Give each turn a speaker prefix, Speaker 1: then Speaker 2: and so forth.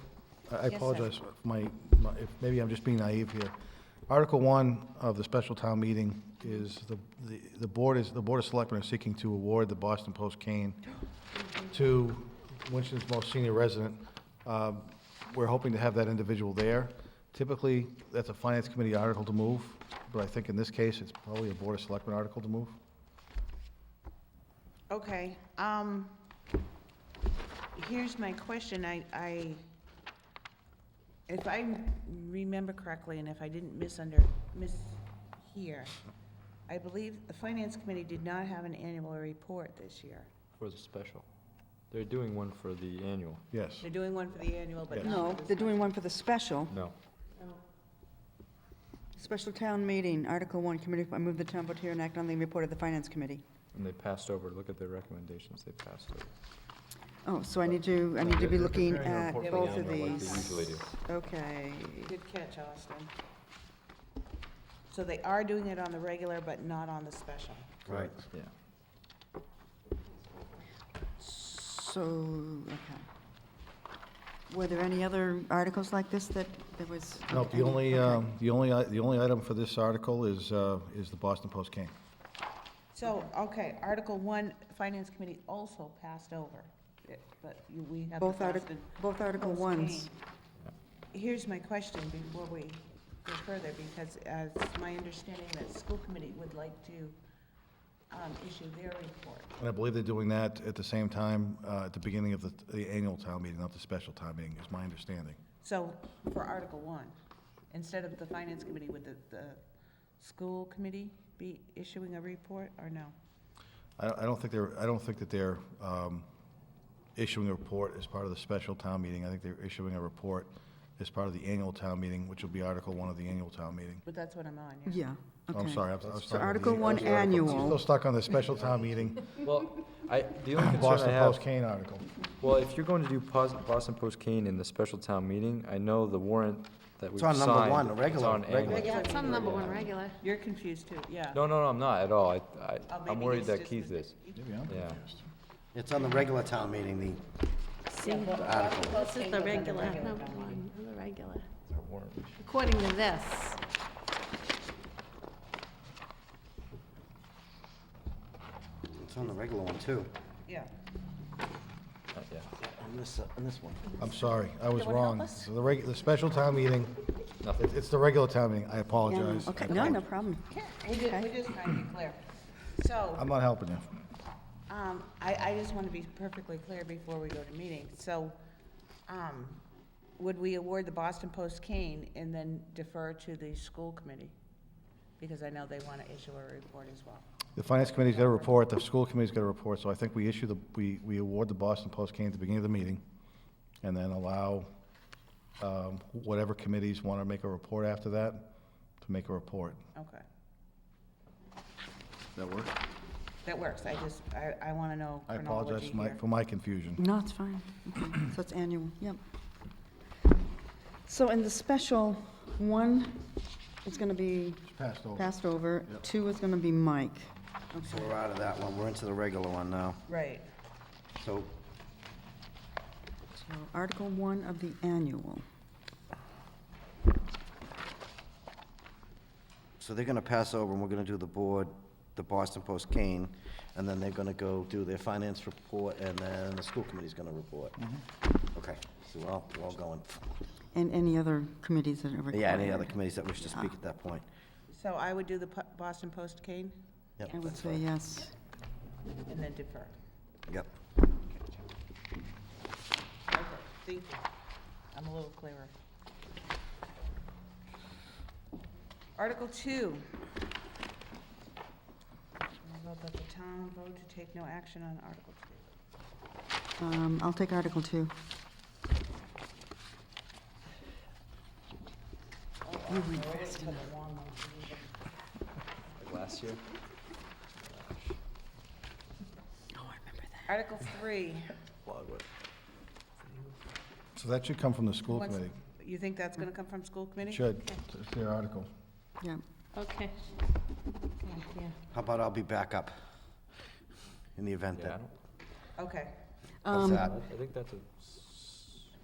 Speaker 1: I
Speaker 2: sir.
Speaker 1: apologize for my, my- if, maybe I'm just being naive here. Article one of the special town meeting is the, the, the board is, the Board of Selectmen are seeking to award the Boston Post cane to Winston's most senior resident. Um, We're hoping to have that individual there. Typically, that's a Finance Committee article to move, but I think in this case, it's probably a Board of Selectmen article to move.
Speaker 2: Okay, um, here's my question, I, I, if I remember correctly, and if I didn't misunder, mishear, I believe the Finance Committee did not have an annual report this year.
Speaker 3: For the special. They're doing one for the annual.
Speaker 1: Yes.
Speaker 2: They're doing one for the annual, but not
Speaker 4: No,
Speaker 2: for
Speaker 4: they're
Speaker 2: this
Speaker 4: doing one for the special,
Speaker 3: No.
Speaker 4: special town meeting, Article 1, committee, I move the town vote here and act on the report of the Finance Committee.
Speaker 3: And they passed over, look at their recommendations, they passed over.
Speaker 4: Oh, so I need to, I need to be
Speaker 3: They're
Speaker 4: looking
Speaker 1: preparing a
Speaker 4: at
Speaker 1: report
Speaker 2: for
Speaker 4: both
Speaker 2: the
Speaker 4: of
Speaker 3: annual, like
Speaker 4: these.
Speaker 3: they usually do.
Speaker 4: Okay,
Speaker 2: one. Good catch, Austin. So they are doing it on the regular, but not on the special.
Speaker 1: Right.
Speaker 3: Yeah.
Speaker 4: so, okay. Were there any other articles like this that there was?
Speaker 1: No, the
Speaker 4: any-
Speaker 1: only,
Speaker 4: okay.
Speaker 1: um, the only, i- the only item for this article is, uh, is the Boston Post cane.
Speaker 2: So, okay, Article One, Finance Committee also passed over, it- but you- we have. the
Speaker 4: Both Article,
Speaker 2: Boston
Speaker 4: both Article
Speaker 2: Post
Speaker 4: 1s.
Speaker 2: cane. Here's my question before we go further, because uh, it's my understanding that school committee would like to um, issue their report.
Speaker 1: And I believe they're doing that at the same time, uh, at the beginning of the, the annual town meeting, not the special town meeting, is my understanding.
Speaker 2: So, for Article One, instead of the Finance Committee, would the, the school committee be issuing a report, or no?
Speaker 1: I, I don't think they're, I don't think that they're, um, issuing a report as part of the special town meeting. I think they're issuing a report as part of the annual town meeting, which will be Article One of the annual town meeting.
Speaker 2: But that's what I'm on, yeah.
Speaker 4: Yeah, okay.
Speaker 1: Oh, I'm sorry, I was- I was. talking
Speaker 4: So
Speaker 1: about the-
Speaker 4: Article One
Speaker 1: I was article-
Speaker 4: annual.
Speaker 1: Still stuck on the special town meeting,
Speaker 3: Well, I, the only concern
Speaker 1: Boston
Speaker 3: I
Speaker 1: Post
Speaker 3: have,
Speaker 1: cane article.
Speaker 3: well, if you're going to do pos- Boston Post Kane in the special town meeting, I know the warrant that we've
Speaker 5: on
Speaker 3: signed.
Speaker 5: number one, the regular-
Speaker 3: It's on
Speaker 5: regular.
Speaker 3: annual.
Speaker 6: Yeah, it's on number one regular.
Speaker 2: You're confused too, yeah.
Speaker 3: No, no, no, I'm not at all. I,
Speaker 2: Oh,
Speaker 3: I,
Speaker 2: maybe
Speaker 3: I'm worried
Speaker 2: he's
Speaker 3: that
Speaker 2: just
Speaker 3: Keith
Speaker 2: the-
Speaker 3: is.
Speaker 1: Maybe I'm
Speaker 3: Yeah.
Speaker 1: confused.
Speaker 5: It's on the regular town meeting, the,
Speaker 6: This is the regular. Number one, on the regular. According to this.
Speaker 5: it's on the regular one, too.
Speaker 2: Yeah.
Speaker 3: Uh, Yeah,
Speaker 5: On this, uh, on this one.
Speaker 1: I'm sorry, I was
Speaker 2: Anyone help
Speaker 1: wrong.
Speaker 2: us?
Speaker 1: So The reg, the special town meeting,
Speaker 3: nothing.
Speaker 1: it- it's the regular town meeting, I
Speaker 4: Yeah, no,
Speaker 1: apologize.
Speaker 4: Okay,
Speaker 1: I
Speaker 4: no, no
Speaker 1: apologize.
Speaker 4: problem.
Speaker 2: Yeah, we're just, we're just trying to be clear.
Speaker 1: I'm
Speaker 2: So,
Speaker 1: not helping you.
Speaker 2: um, I, I just want to be perfectly clear before we go to meeting. So, um, would we award the Boston Post cane and then defer to the school committee? Because I know they want to issue a report as well.
Speaker 1: The finance committee's got a report, the school committee's got a report, so I think we issue the, we, we award the Boston Post cane at the beginning of the meeting, and then allow, um, whatever committees want to make a report after that, to make a report.
Speaker 2: Okay,
Speaker 1: That work?
Speaker 2: that works. I just, I, I want to know
Speaker 1: I
Speaker 2: chronology
Speaker 1: apologize for my,
Speaker 2: here.
Speaker 1: for my confusion.
Speaker 4: No, it's fine. So it's annual, yep. So in the special, one is going to be
Speaker 1: It's passed over.
Speaker 4: passed over, two is going to be Mike.
Speaker 5: So we're out of that one, we're into the regular one now.
Speaker 2: Right.
Speaker 5: So,
Speaker 4: So Article one of the annual.
Speaker 5: so they're gonna pass over, and we're gonna do the board, the Boston Post Kane, and then they're gonna go do their finance report, and then the school committee's gonna report. Okay, so we're all, we're all going.
Speaker 4: And any other committees that are required.
Speaker 5: Yeah, any other committees that wish to speak at that point?
Speaker 2: So I would do the Po- Boston Post cane
Speaker 5: Yep,
Speaker 4: I would
Speaker 5: that's
Speaker 4: say
Speaker 5: fine.
Speaker 4: yes.
Speaker 2: and then defer.
Speaker 5: Yep.
Speaker 2: Okay, thank you. I'm a little clearer. Article two. I vote that the town vote to take no action on Article two.
Speaker 4: Um, I'll take Article two.
Speaker 3: Last year?
Speaker 2: Article three.
Speaker 1: So that should come from the school
Speaker 2: Once-
Speaker 1: committee.
Speaker 2: You think that's gonna come from school committee?
Speaker 1: Should, it's their article.
Speaker 4: Yeah.
Speaker 6: Okay. Yeah.
Speaker 5: How about I'll be back up in the event
Speaker 3: Yeah, I
Speaker 5: that,
Speaker 3: don't,
Speaker 2: Okay,
Speaker 5: how's that?
Speaker 4: Um,
Speaker 3: I think that's a s-